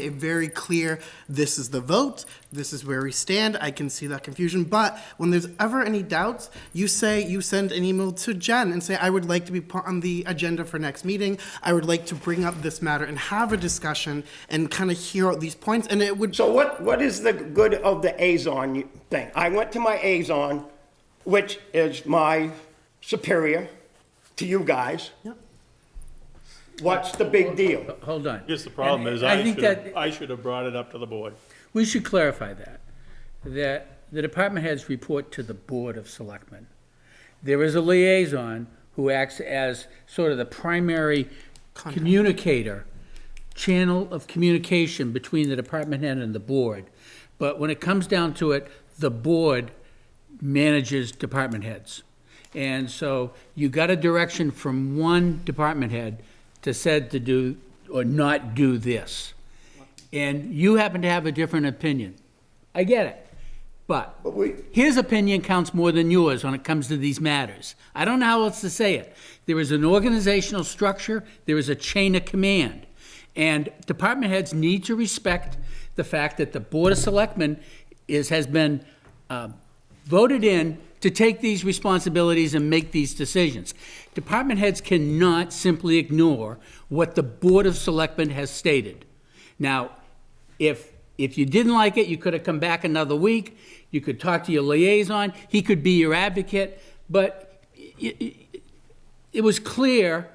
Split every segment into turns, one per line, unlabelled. a very clear, this is the vote, this is where we stand, I can see that confusion, but when there's ever any doubts, you say, you send an email to Jen and say, I would like to be put on the agenda for next meeting, I would like to bring up this matter and have a discussion and kind of hear out these points, and it would,
So what, what is the good of the Azon thing? I went to my Azon, which is my superior to you guys.
Yep.
What's the big deal?
Hold on.
Guess the problem
And
is I
think
should have,
that
I should have brought it up to the board.
We should clarify that, that the department heads report to the Board of Selectmen. There is a liaison who acts as sort of the primary communicator, channel of communication between the department head and the board. But when it comes down to it, the board manages department heads. And so you got a direction from one department head to said to do or not do this. And you happen to have a different opinion. I get it. But
But we-
his opinion counts more than yours when it comes to these matters. I don't know how else to say it. There is an organizational structure, there is a chain of command. And department heads need to respect the fact that the Board of Selectmen is, has been um, voted in to take these responsibilities and make these decisions. Department heads cannot simply ignore what the Board of Selectmen has stated. Now, if, if you didn't like it, you could have come back another week, you could talk to your liaison, he could be your advocate, but it, it- it was clear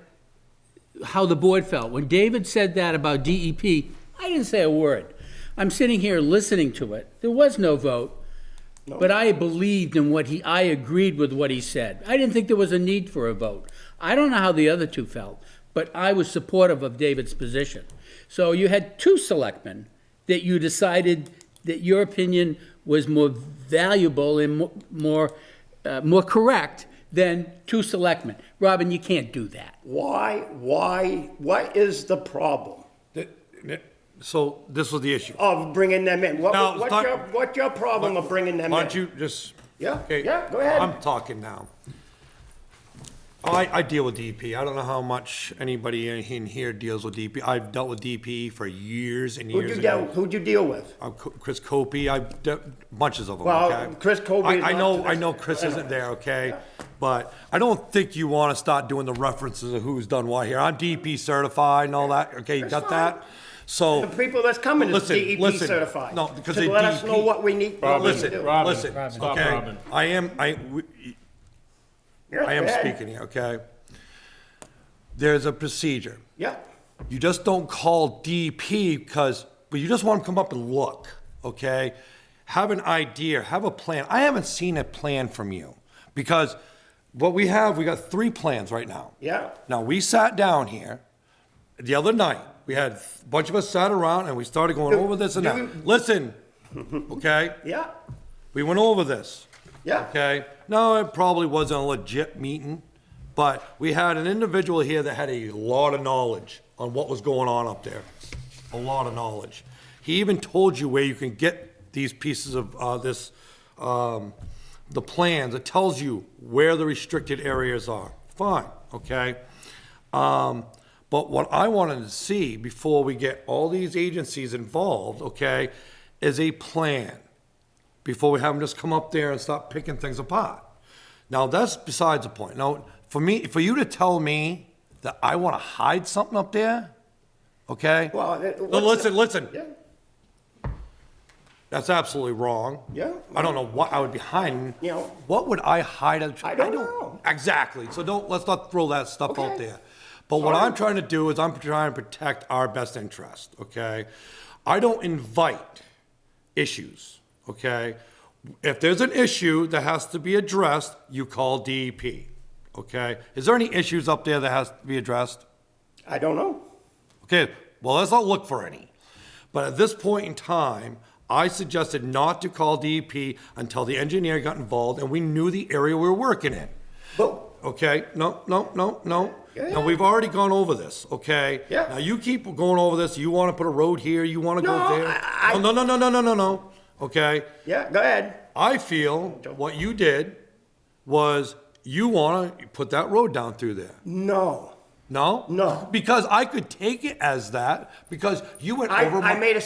how the board felt. When David said that about DEP, I didn't say a word. I'm sitting here listening to it. There was no vote. But I believed in what he, I agreed with what he said. I didn't think there was a need for a vote. I don't know how the other two felt, but I was supportive of David's position. So you had two selectmen that you decided that your opinion was more valuable and mo- more, uh, more correct than two selectmen. Robin, you can't do that.
Why, why, what is the problem
Th- th- So this was the issue.
of bringing them in? What,
Now,
what's
talk-
your, what's your problem of bringing them in?
Why don't you just?
Yeah,
okay,
yeah, go ahead.
I'm talking now. I, I deal with DP. I don't know how much anybody in- in here deals with DP. I've dealt with DP for years and
Who'd
years.
you
and
deal,
years.
who'd you deal with?
Uh, Co- Chris Copey, I've de- bunches of them.
Well,
okay?
Chris Copey is
I, I
not
know,
to
I
this-
know Chris
I know.
isn't there, okay? But I don't think you want to start doing the references of who's done what here. I'm DP certified and all that, okay? You got that? So.
The people that's coming is
Listen,
DEP
listen.
certified.
No, because
To
they
Let us
DEP
know what we need, what we need to
Listen,
do.
Robin,
listen,
Stop,
okay?
Robin.
I am, I, we-
Yeah,
I am
go ahead.
speaking here, okay? There's a procedure.
Yeah,
You just don't call DP because, but you just want them to come up and look, okay? Have an idea, have a plan. I haven't seen a plan from you because what we have, we got three plans right now.
Yeah.
Now, we sat down here the other night. We had a bunch of us sat around and we started going
Do-
over this and
do
that. Listen, okay?
yeah,
We went over this.
yeah.
Okay. No, it probably wasn't a legit meeting, but we had an individual here that had a lot of knowledge on what was going on up there. A lot of knowledge. He even told you where you can get these pieces of uh, this, um, the plans. It tells you where the restricted areas are. Fine. Okay. Um, but what I wanted to see before we get all these agencies involved, okay, is a plan before we have them just come up there and start picking things apart. Now, that's besides the point. Now, for me, for you to tell me that I want to hide something up there, okay?
Well, it-
No,
what's-
listen, listen.
Yeah.
That's absolutely wrong.
Yeah.
I don't know what I would be hiding.
You know.
What would I hide? I
I don't know.
Exactly. So don't, let's not throw that stuff out
Okay.
there. But what
Sorry.
I'm trying to do is I'm trying to protect our best interest, okay? I don't invite issues, okay? If there's an issue that has to be addressed, you call DEP, okay? Is there any issues up there that has to be addressed?
I don't know.
Okay, well, let's not look for any. But at this point in time, I suggested not to call DEP until the engineer got involved and we knew the area we were working in.
But
Okay, no, no, no, no.
Yeah.
Now, we've already gone over this, okay?
Yeah.
Now, you keep going over this, you wanna put a road here, you wanna
No,
go there.
I- I-
No, no, no, no, no, no, no, okay?
yeah, go ahead.
I feel what you did was you wanna put that road down through there.
No.
No?
No.
Because I could take it as that, because you went
I,
over my.
I made a